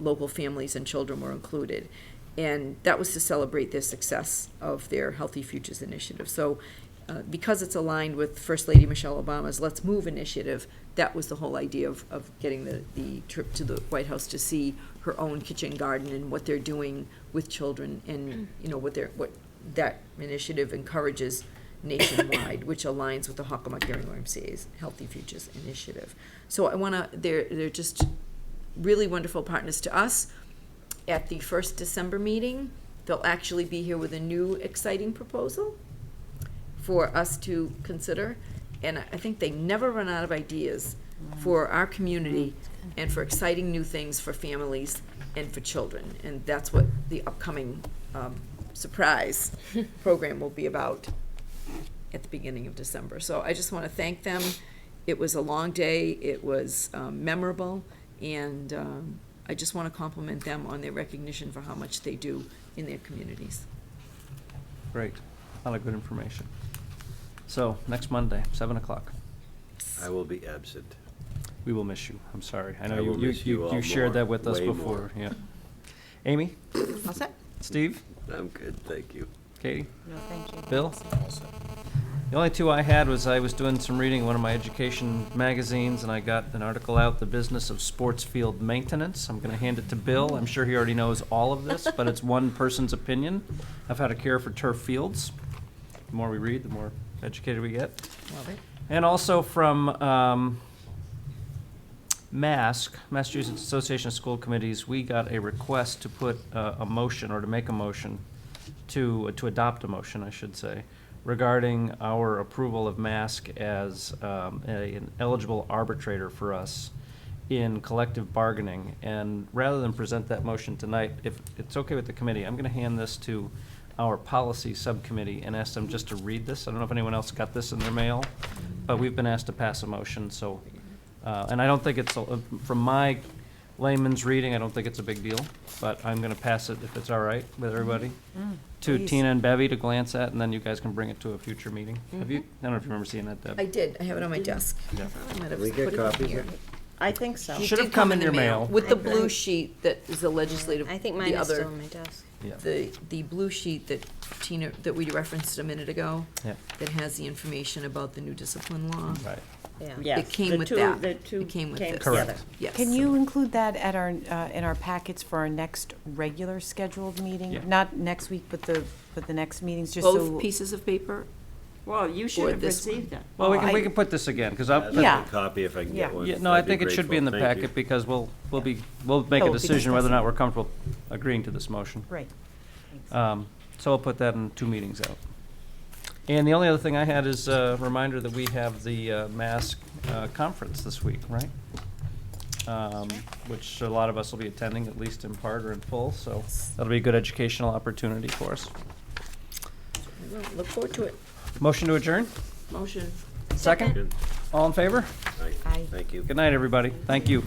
local families and children were included. And that was to celebrate their success of their Healthy Futures Initiative. So uh, because it's aligned with First Lady Michelle Obama's Let's Move initiative, that was the whole idea of, of getting the, the trip to the White House to see her own kitchen garden and what they're doing with children and, you know, what they're, what that initiative encourages nationwide, which aligns with the Hockomock Gary MCA's Healthy Futures Initiative. So I want to, they're, they're just really wonderful partners to us. At the first December meeting, they'll actually be here with a new exciting proposal for us to consider. And I I think they never run out of ideas for our community and for exciting new things for families and for children. And that's what the upcoming um, surprise program will be about at the beginning of December. So I just want to thank them. It was a long day, it was um, memorable, and um, I just want to compliment them on their recognition for how much they do in their communities. Great, a lot of good information. So, next Monday, seven o'clock. I will be absent. We will miss you, I'm sorry. I know I you, will you, miss you you- all you shared more, that with us way before, more. yeah. Amy, All set? Steve, I'm good, thank you. Katie, No, thank you. Bill? The only two I had was I was doing some reading in one of my education magazines, and I got an article out, The Business of Sports Field Maintenance. I'm gonna hand it to Bill, I'm sure he already knows all of this, but it's one person's opinion of how to care for turf fields. The more we read, the more educated we get. Love it. And also from um, MASC, Massachusetts Association of School Committees, we got a request to put uh, a motion, or to make a motion, to, to adopt a motion, I should say, regarding our approval of MASC as um, a- an eligible arbitrator for us in collective bargaining. And rather than present that motion tonight, if it's okay with the committee, I'm going to hand this to our policy subcommittee and ask them just to read this. I don't know if anyone else got this in their mail, but we've been asked to pass a motion, so, uh, and I don't think it's, a- from my layman's reading, I don't think it's a big deal, but I'm going to pass it if it's all right with everybody, Mm-hmm. Mm. to please. Tina and Bevy to glance at, and then you guys can bring it to a future meeting. Have you, I don't know if you remember seeing that, Deb. I did, I have it on my desk. Yeah. I might have We get put it in copies here. of it? I think so. It Should have did come in your the mail. With the Okay. blue sheet that is the legislative, I think mine the is still other, on my desk. Yeah. the, the blue sheet that Tina, that we referenced a minute ago, Yeah. that has the information about the new discipline law. Right. Yeah. It came the with two- that. the two It came with came this. together. Correct. Yes. Can you include that at our, uh, in our packets for our next regular scheduled meeting? Yeah. Not next week, but the, but the next meetings, just so. Both pieces of paper? Well, you Or should have this one. received that. Well, we Well, can, we I- can put this again, because I, I'd but- like Yeah. a copy if I can Yeah. get one. yeah, no, I I'd think it should be in the grateful. Thank you. packet, because we'll, we'll be, we'll make a Oh, we decision whether or discuss not we're comfortable agreeing to this motion. Right. Um, So I'll put that in two meetings out. And the only other thing I had is a reminder that we have the uh, mask uh, conference this week, right? Um, Which a lot of us will be attending, at least in part or in full, so that'll be a good educational opportunity for us. Well, Look forward to it. Motion to adjourn? Motion. Second? Good. All in favor? All right. Aye. Thank you. Good night, everybody. Thank you.